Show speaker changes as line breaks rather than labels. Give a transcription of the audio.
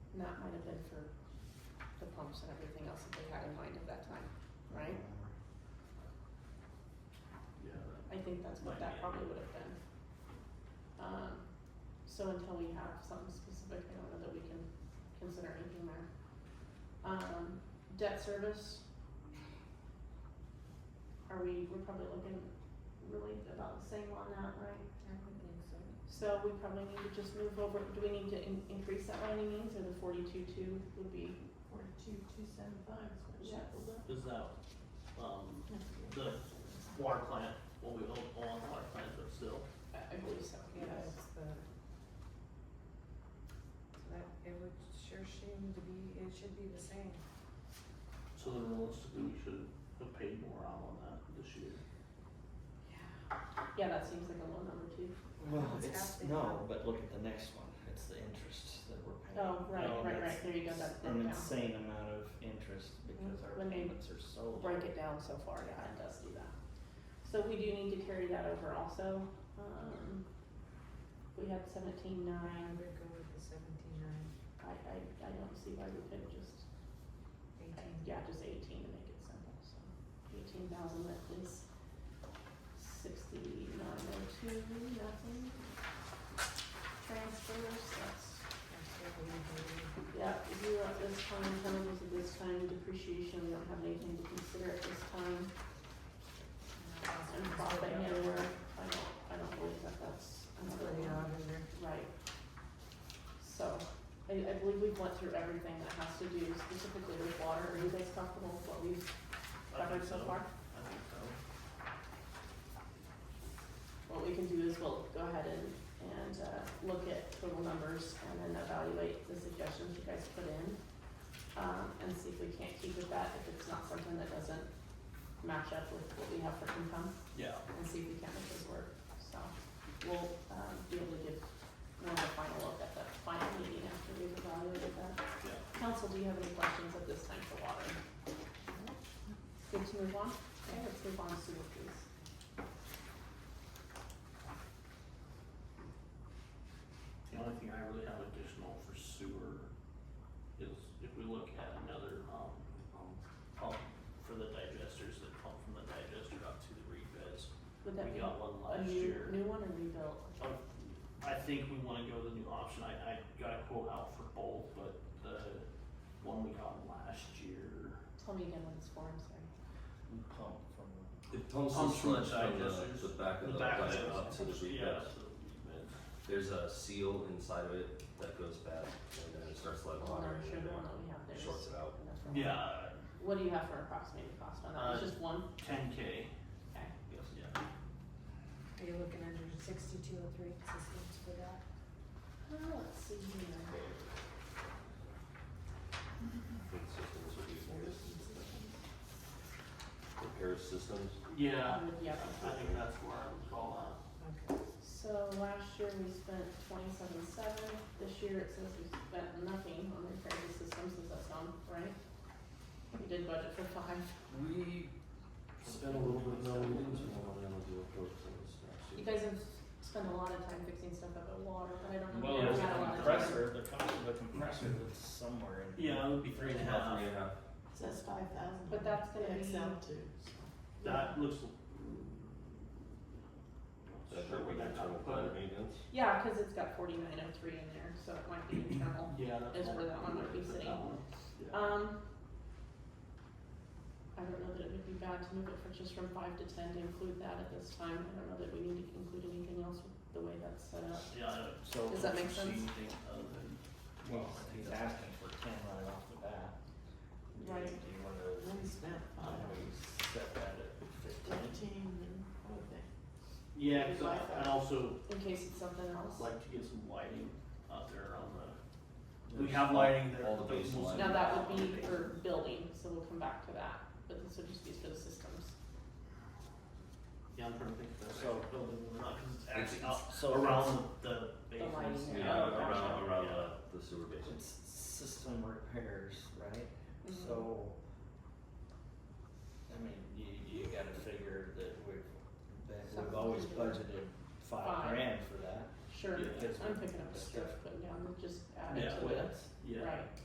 And that might have been for the pumps and everything else that they had in mind at that time, right?
Yeah, that
I think that's what that probably would have been. Um, so until we have something specific, I don't know that we can consider anything there. Um, debt service. Are we, we're probably looking really about the same on that, right?
I would think so.
So we probably need to just move over, do we need to in- increase that by any means, or the forty-two two would be?
Forty-two, two seven five is what she
Yes.
pulled up.
is that, um,
That's
the
good.
water plant, what we own on the water plant, but still,
I I believe so,
Yeah, it's the. So that, it would sure seem to be, it should be the same.
so then realistically, we should have paid more out on that this year.
Yeah.
Yeah, that seems like a low number too.
Well,
It's
it's,
half the
no,
amount.
but look at the next one, it's the interest that we're paying.
Oh, right,
No,
right,
that's
right, there you go, that's broken down.
An insane amount of interest because our
When they
payments are so low.
break it down so far, yeah, it does do that. So we do need to carry that over also, um, we had seventeen
I
nine,
would go with the seventy-nine,
I, I, I don't see why we couldn't just,
eighteen.
yeah, just eighteen to make it simple, so. Eighteen thousand, that is sixty-nine oh two, nothing. Transfers, that's
That's what we do.
Yeah, zero at this time, chemicals at this time, depreciation, we don't have anything to consider at this time,
And that's
and
what's
profit
going on.
anywhere, I don't, I don't believe that that's
That's
another
what the
one.
auditor.
Right. So, I, I believe we've went through everything that has to do specifically with water, are you guys comfortable with what we've
I think
covered so far?
I think so.
What we can do is we'll go ahead and, and, uh, look at total numbers and then evaluate the suggestions you guys put in. Um, and see if we can't keep with that, if it's not something that doesn't match up with what we have for income,
Yeah,
and see if we can make this work, so. We'll, um, be able to give more of a final look at that final meeting after we've evaluated that.
yeah.
Council, do you have any questions at this time for water? Good to move on? Okay, let's move on to sewer, please.
The only thing I really have additional for sewer is if we look at another, um, um, pump for the digesters, that pump from the digester up to the reed beds.
Would that be
We got one
a
last
new,
year.
new one or rebuilt?
Um, I think we wanna go the new option, I, I got a quote out for both, but the one we got last year.
Tell me again what it's for, I'm sorry.
We pump from,
It
Pumps the
pumps from the
sludge from
digesters.
the, the back of the
back
pipe
it
up to the reed
Yeah,
beds.
to the reed beds.
There's a seal inside of it that goes bad and then it starts letting
Well, I'm
water in
sure
and
the
then
one that we have there
it
is.
shorts it out.
enough for one.
Yeah,
What do you have for approximated cost on that?
Uh,
It's just one?
ten K,
Okay.
yes, yeah.
Are you looking under sixty-two oh three systems for that?
Uh, let's see here.
Food systems would be more repair systems.
Yeah,
Um, yeah.
I think that's where I would call that.
Okay.
So last year we spent twenty-seven seven, this year it says we spent nothing on repairs and systems, is that sound right? We did budget for five,
We spent a little bit, no, we didn't spend a lot of energy on those things last
you
year.
guys have spent a lot of time fixing stuff up at water, but I don't know.
well,
if
Yeah.
we
there's a
had lot of time.
compressor, the cost of a compressor that's somewhere in.
Yeah, it would be
Three and a half, three and a half.
Says five thousand.
But that's gonna be-
Excel too.
That looks.
That's
Sure,
what
we
we
got
internal
put
plant
it.
maintenance.
Yeah, cause it's got forty-nine oh three in there, so it might be internal.
Yeah, that's.
Is where that one would be
Put that
sitting.
one. Yeah.
Um, I don't know that it would be bad to move it for just from five to ten to include that at this time, I don't know that we need to include anything else with the way that's set up.
Yeah, I don't
So.
Does that make
she-
sense?
Well, he's asking for ten right off the bat. Do you-
Right.
Do you wanna,
We spent
I
five,
don't know, we set that at fifteen?
fifteen, and what they?
Yeah, cause I, I'd also
In case it's something else.
like to get some lighting out there on the, we
There's
have lighting there.
All the
but
base
most-
lighting.
Now, that would be for building, so we'll come back to that, but this would just be for the systems.
Yeah, I'm trying to think of that.
So-
Building, or not, cause it's
It's-
actually up
So it's-
around the
The lighting
bases.
there.
Yeah,
Oh, gotcha.
around, around
Yeah.
the, the sewer basin.
It's system repairs, right?
Mm-hmm.
So, I mean, you, you gotta figure that we've, that we've
Something
always
to do.
budgeted
Five.
five grand for that.
Sure,
Yeah.
I'm picking up the stuff, putting down, just add it
Yeah.
to it,
Yeah.
right.